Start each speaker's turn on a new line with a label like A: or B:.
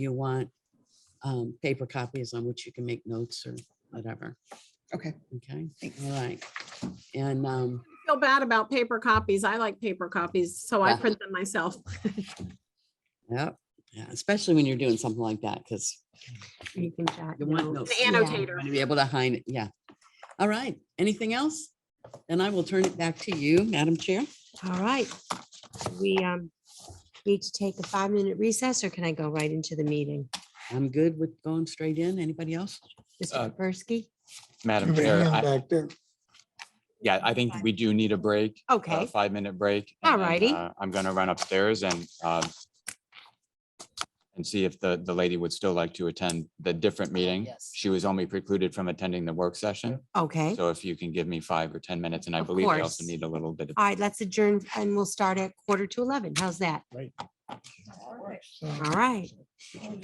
A: you want um, paper copies on which you can make notes or whatever.
B: Okay.
A: Okay,
B: Thanks.
A: all right. And um,
C: feel bad about paper copies. I like paper copies, so I
A: Yeah.
C: print them myself.
A: Yep, yeah, especially when you're doing something like that, because
D: You can jot
A: you want
D: notes.
A: notes.
C: An annotator.
A: To be able to hide it, yeah. All right, anything else? Then I will turn it back to you, Madam Chair.
D: All right. We um need to take a five-minute recess, or can I go right into the meeting?
A: I'm good with going straight in. Anybody else?
D: Mr.
E: Uh,
D: Kapersky?
E: Madam
F: Nobody
E: Chair,
F: hung
E: I-
F: back there.
E: yeah, I think we do need a break. uh,
D: Okay,
E: Five minute break. and then,
D: Alrighty.
E: uh, I'm going to run upstairs and um, and see if the, the lady would still like to attend the
D: Oh,
E: different meeting.
A: Yes.
E: She was only precluded from attending the work session.
D: okay. All
E: So if you can give me five or 10 minutes, and I
D: Of
E: believe I also
D: course.
E: need a little bit of.
D: right, let's adjourn and we'll start at quarter to 11. How's that?
F: So-
D: All right.